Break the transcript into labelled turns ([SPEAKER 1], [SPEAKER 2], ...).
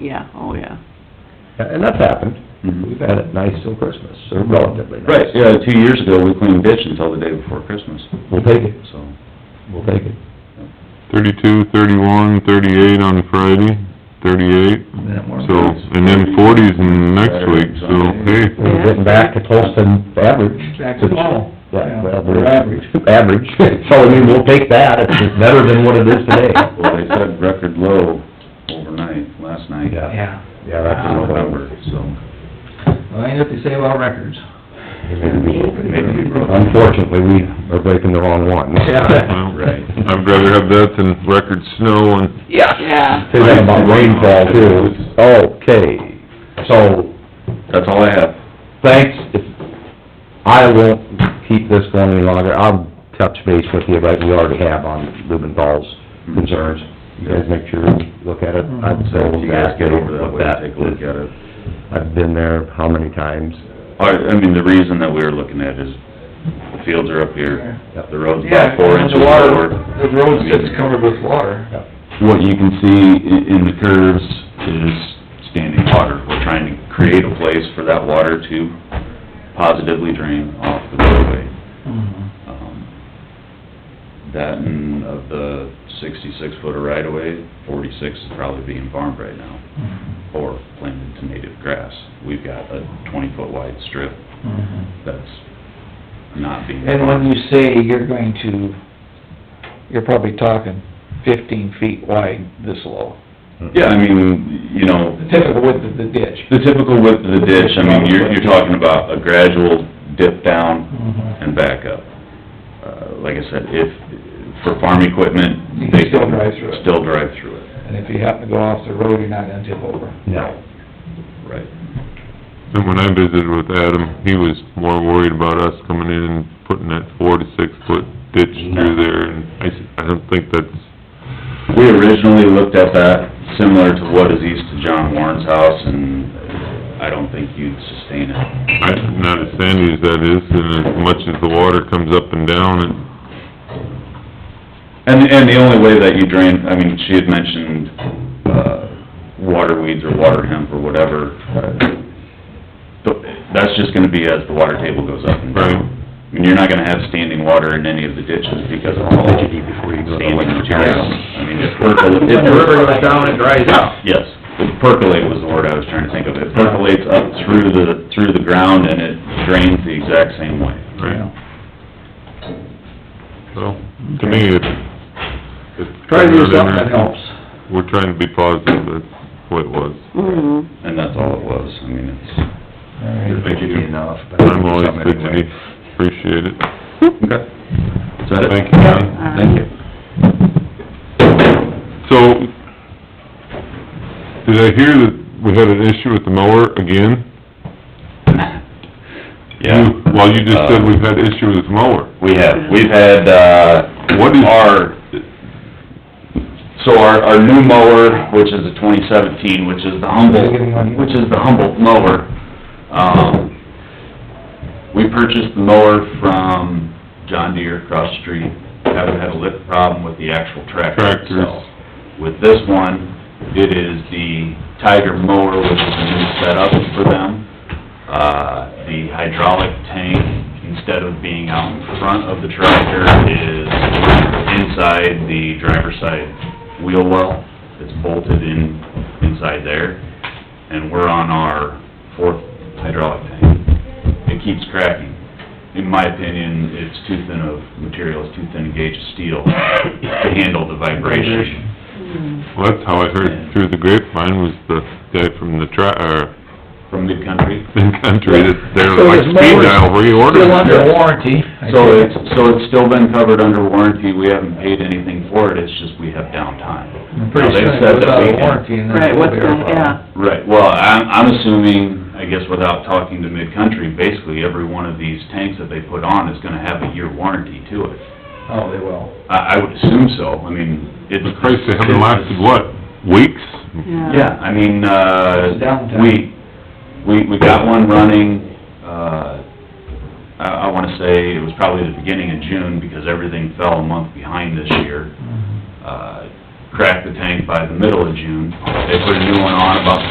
[SPEAKER 1] yeah, oh, yeah.
[SPEAKER 2] And that's happened.
[SPEAKER 3] Mhm.
[SPEAKER 2] We've had it nice till Christmas, or relatively nice.
[SPEAKER 3] Right, yeah, two years ago, we cleaned ditch until the day before Christmas,
[SPEAKER 2] We'll take it,
[SPEAKER 3] so.
[SPEAKER 2] we'll take it.
[SPEAKER 4] Thirty-two, thirty-one, thirty-eight on Friday, thirty-eight, so, and then forties in next week, so, hey.
[SPEAKER 2] We're getting back to close to average.
[SPEAKER 5] Back to normal.
[SPEAKER 2] Yeah, well,
[SPEAKER 5] Or
[SPEAKER 2] we're
[SPEAKER 5] average.
[SPEAKER 2] average, so I mean, we'll take that, it's it's better than what it is today.
[SPEAKER 3] Well, they said record low overnight, last night.
[SPEAKER 5] Yeah,
[SPEAKER 2] Yeah, that's
[SPEAKER 3] In
[SPEAKER 2] a number.
[SPEAKER 3] November, so.
[SPEAKER 5] well, ain't what they say about records.
[SPEAKER 3] Maybe we broke.
[SPEAKER 2] Unfortunately, we are breaking the wrong one.
[SPEAKER 5] Yeah.
[SPEAKER 3] Right.
[SPEAKER 4] I'd rather have that than record snow and
[SPEAKER 1] Yeah.
[SPEAKER 2] Say that about rainfall too. Okay, so,
[SPEAKER 3] That's all I have.
[SPEAKER 2] thanks, I won't keep this going any longer, I'll touch base with you, like we already have on Lubin Falls concerns. You guys make sure you look at it, I'd say
[SPEAKER 3] If you guys get over that
[SPEAKER 2] look
[SPEAKER 3] way,
[SPEAKER 2] at
[SPEAKER 3] take a look at it.
[SPEAKER 2] I've been there how many times?
[SPEAKER 3] I, I mean, the reason that we were looking at is the fields are up here, the road's
[SPEAKER 5] Yeah,
[SPEAKER 3] about four
[SPEAKER 5] and
[SPEAKER 3] inches
[SPEAKER 5] the water,
[SPEAKER 3] lower.
[SPEAKER 5] the road's just covered with water.
[SPEAKER 3] What you can see i- in the curves is standing water. We're trying to create a place for that water to positively drain off the roadway.
[SPEAKER 5] Mm-hmm,
[SPEAKER 3] Um, That and of the sixty-six footer right-of-way, forty-six is probably being farmed right now,
[SPEAKER 5] mm-hmm,
[SPEAKER 3] or planted to native grass. We've got a twenty-foot wide strip
[SPEAKER 5] mm-hmm.
[SPEAKER 3] that's not being
[SPEAKER 5] And when you say you're going to, you're probably talking fifteen feet wide this low,
[SPEAKER 3] Yeah, I mean, you know,
[SPEAKER 5] the typical width of the ditch.
[SPEAKER 3] the typical width of the ditch, I mean, you're, you're talking about a gradual dip down
[SPEAKER 5] Mm-hmm.
[SPEAKER 3] and back up. Uh, Like I said, if, for farm
[SPEAKER 5] You
[SPEAKER 3] equipment,
[SPEAKER 5] can
[SPEAKER 3] they
[SPEAKER 5] still
[SPEAKER 3] can
[SPEAKER 5] drive through it.
[SPEAKER 3] still drive through it,
[SPEAKER 5] And if you happen to go off the road, you're not gonna tip over.
[SPEAKER 2] No.
[SPEAKER 3] right?
[SPEAKER 4] And when I visited with Adam, he was more worried about us coming in and putting that four to six foot ditch through there, and I, s- I don't think that's,
[SPEAKER 3] We originally looked at that similar to what is east of John Warren's house, and I don't think you'd sustain it.
[SPEAKER 4] I, not as sandy as that is, and as much as the water comes up and down, and
[SPEAKER 3] And, and the only way that you drain, I mean, she had mentioned, uh, water weeds or water hemp or whatever. But That's just gonna be as the water table goes up and
[SPEAKER 4] Right.
[SPEAKER 3] down. I mean, you're not gonna have standing water in any of the ditches because of all
[SPEAKER 2] What you need before you go to
[SPEAKER 3] standing
[SPEAKER 2] electric
[SPEAKER 3] material.
[SPEAKER 2] house.
[SPEAKER 3] I mean, if percolate, if
[SPEAKER 2] goes
[SPEAKER 3] percolate.
[SPEAKER 2] down, it dries out.
[SPEAKER 3] Yes, If percolate was the word I was trying to think of. It percolates up through the, through the ground and it drains the exact same way.
[SPEAKER 4] Right, so, to me, it's... it's
[SPEAKER 5] Try to
[SPEAKER 4] better
[SPEAKER 5] do
[SPEAKER 4] than-
[SPEAKER 5] something that helps.
[SPEAKER 4] We're trying to be positive, that's what it was.
[SPEAKER 1] Mm-hmm.
[SPEAKER 3] And that's all it was. I mean, it's,
[SPEAKER 5] Alright.
[SPEAKER 2] Fidgety enough. but
[SPEAKER 4] I'm always
[SPEAKER 2] something anyway.
[SPEAKER 4] fidgety, appreciate it.
[SPEAKER 3] okay. Is that it?
[SPEAKER 4] Thank you, John.
[SPEAKER 3] Thank you.
[SPEAKER 4] So, did I hear that we had an issue with the mower again? You- Well, you just
[SPEAKER 3] Uh,
[SPEAKER 4] said we've had issue with the mower.
[SPEAKER 3] We have, we've had, uh,
[SPEAKER 4] What is-
[SPEAKER 3] our, so our, our new mower, which is a twenty seventeen, which is the Humboldt, which is the Humboldt mower, um, we purchased the mower from John Deere across the street, haven't had a lip problem with the actual tractor
[SPEAKER 4] Tractors.
[SPEAKER 3] itself. With this one, it is the Tiger mower, which is a new setup for them. Uh, the hydraulic tank, instead of being out in front of the tractor, is inside the driver's side wheel well. It's bolted in, inside there, and we're on our fourth hydraulic tank. It keeps cracking. In my opinion, it's too thin of material, it's too thin a gauge of steel to handle the vibration.
[SPEAKER 4] Well, that's how I heard through the grapevine, was the guy from the tri, or,
[SPEAKER 3] from mid-country.
[SPEAKER 4] the country, that they're
[SPEAKER 5] So
[SPEAKER 4] like
[SPEAKER 5] his
[SPEAKER 4] speed
[SPEAKER 5] mower's
[SPEAKER 4] dial, reordered.
[SPEAKER 5] Still under warranty. I
[SPEAKER 3] So
[SPEAKER 5] think.
[SPEAKER 3] it's, so it's still been covered under warranty, we haven't paid anything for it, it's just we have downtime.
[SPEAKER 5] I'm pretty
[SPEAKER 3] Now, they
[SPEAKER 5] sure it
[SPEAKER 3] said
[SPEAKER 5] goes
[SPEAKER 3] that
[SPEAKER 5] out
[SPEAKER 3] we
[SPEAKER 5] of
[SPEAKER 3] can-
[SPEAKER 5] warranty and then
[SPEAKER 1] Right,
[SPEAKER 5] it'll
[SPEAKER 1] what's
[SPEAKER 5] be our
[SPEAKER 1] the,
[SPEAKER 5] problem.
[SPEAKER 1] yeah,
[SPEAKER 3] Right, well, I'm, I'm assuming, I guess without talking to mid-country, basically every one of these tanks that they put on is gonna have a year warranty to it.
[SPEAKER 5] Oh, they will.
[SPEAKER 3] I, I would assume so, I mean, it's...
[SPEAKER 4] The price, they haven't lasted, what, weeks?
[SPEAKER 1] yeah.
[SPEAKER 3] Yeah, I mean,
[SPEAKER 5] It's
[SPEAKER 3] uh,
[SPEAKER 5] downtime.
[SPEAKER 3] we, we, we got one running, uh, I, I wanna say it was probably the beginning of June, because everything fell a month behind this year. Uh, cracked the tank by the middle of June. They put a new one on about the